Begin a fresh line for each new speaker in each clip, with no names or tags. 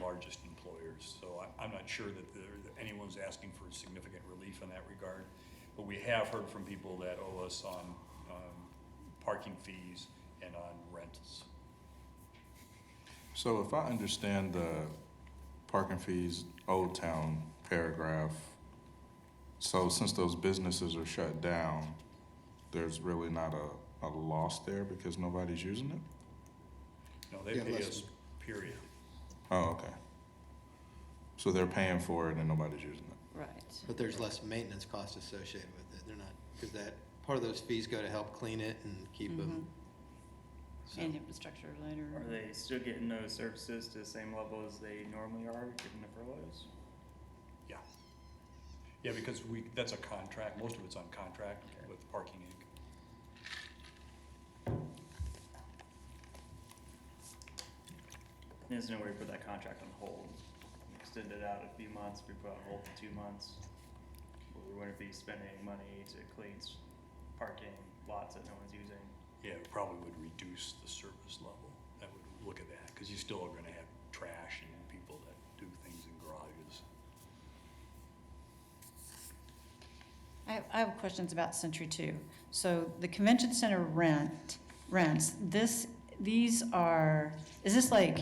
largest employers. So I, I'm not sure that there, that anyone's asking for significant relief in that regard. But we have heard from people that owe us on, um, parking fees and on rents.
So if I understand the parking fees, Old Town paragraph, so since those businesses are shut down, there's really not a, a loss there because nobody's using it?
No, they
Yeah,
pay
less-
us, period.
Oh, okay. So they're paying for it and nobody's using it?
Right.
But there's less maintenance cost associated with it. They're not, because that, part of those fees go to help clean it and keep them. So,
Mm-hmm. And infrastructure later.
Are they still getting those services to the same level as they normally are, given the furloughs?
Yeah, because we, that's a contract, most of it's on contract
Okay.
with Parking Inc.
There's no way to put that contract on hold, extend it out a few months, we put it on hold for two months. But we wouldn't be spending money to clean s- parking lots that no one's using.
Yeah, it probably would reduce the service level. That would look at that, because you still are gonna have trash and people that do things in garages.
I have, I have questions about Century Two. So the convention center rent, rents, this, these are, is this like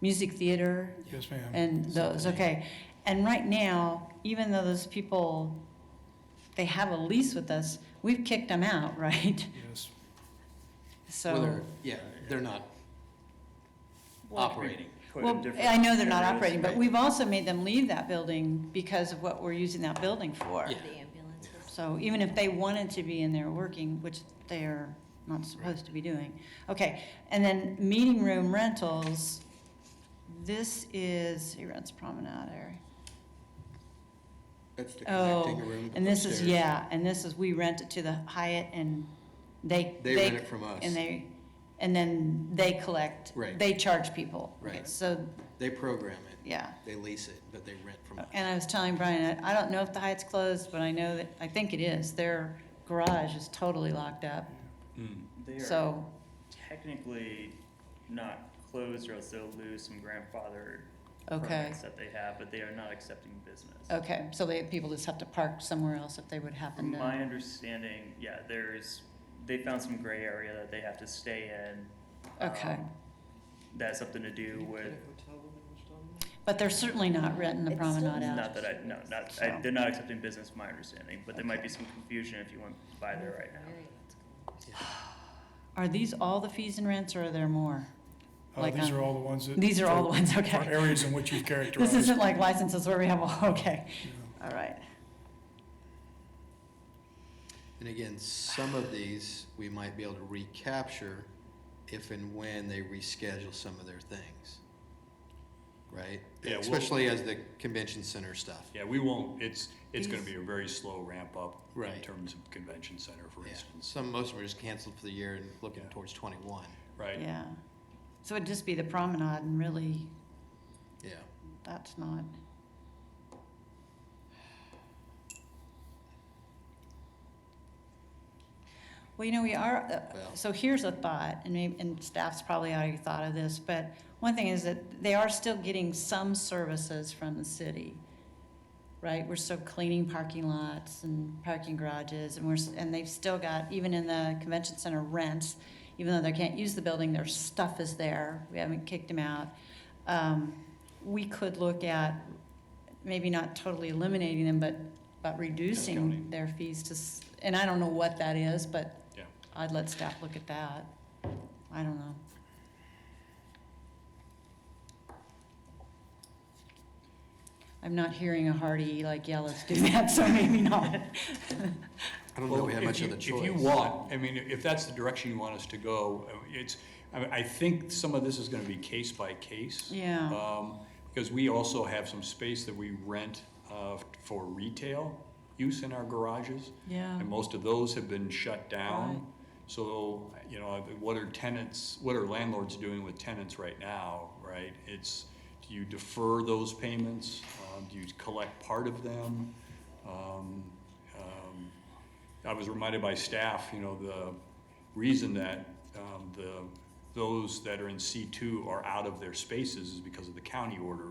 music theater?
Yes, ma'am.
And those, okay. And right now, even though those people, they have a lease with us, we've kicked them out, right?
Yes.
well,
So.
they're- Yeah, they're not
Well-
operating.
Put in
Well,
different
I know they're not
areas.
operating, but
right?
we've also made them leave that building because of what we're using that building for.
Yeah.
The ambulances.
So even if they wanted to be in there working, which they're not supposed to be doing. Okay, and then meeting room rentals, this is, he rents Promenade area.
That's the
Oh,
connecting room. with
And this is,
upstairs.
yeah, and this is, we rent it to the Hyatt and they.
They rent it from us.
And they, and then they collect.
Right.
They charge people.
Right.
So,
They program it.
yeah.
They lease it, but they rent from us.
And I was telling Brian, I I don't know if the Hyatt's closed, but I know that, I think it is. Their garage is totally locked up,
They are
so.
Technically not closed or else they'll lose some grandfathered
Okay,
permits that they have, but they are not accepting business.
okay, so they, people just have to park somewhere else if they would happen
From my
to,
understanding, yeah, there's, they found some gray area that they have to stay in.
Okay.
Um, That's something to do with,
but they're certainly not renting the
It's still
promenade out.
not that I, no, not, I, they're not accepting business, my understanding, but there might be some confusion if you went by there right now.
Are these all the fees and rents, or are there more?
Uh,
Like,
these
um,
are all the ones that.
These are all the ones,
For
okay.
areas in which you've characterized.
This isn't like licenses where we have, all- okay,
Yeah.
all right.
And again, some of these, we might be able to recapture if and when they reschedule some of their things. Right?
Yeah, we'll-
Especially as the convention center stuff.
Yeah, we won't, it's, it's gonna be a very slow ramp up in
Right.
terms of convention center, for
Yeah,
instance,
some, most of them are just canceled for the year and looking
Yeah.
towards twenty-one,
right?
Yeah, so it'd just be the promenade, and really,
yeah.
that's not, well, you know, we are, uh,
Well-
so here's a thought, and maybe, and staff's probably already thought of this, but one thing is that they are still getting some services from the city, right? We're still cleaning parking lots and parking garages, and we're, s- and they've still got, even in the convention center rents, even though they can't use the building, their stuff is there, we haven't kicked them out. Um, we could look at, maybe not totally eliminating them, but, but reducing
Discounting.
their fees to, s- and I don't know what that is, but
Yeah.
I'd let staff look at that. I don't know. I'm not hearing a hearty, like, yeah, let's do that, so maybe not.
I don't know that we
Well,
have
if
much of
you-
a choice.
If you want, I mean, if that's the direction you want us to go, uh, it's, I, mean, I think some of this is gonna be case by case.
Yeah.
Um, because we also have some space that we rent, uh, for retail use in our garages.
Yeah.
And most of those have been shut
Right.
down. So, you know, what are tenants, what are landlords doing with tenants right now, right? It's, do you defer those payments? Um, do you collect part of them? Um, um, I was reminded by staff, you know, the reason that, um, the, those that are in C two are out of their spaces is because of the county order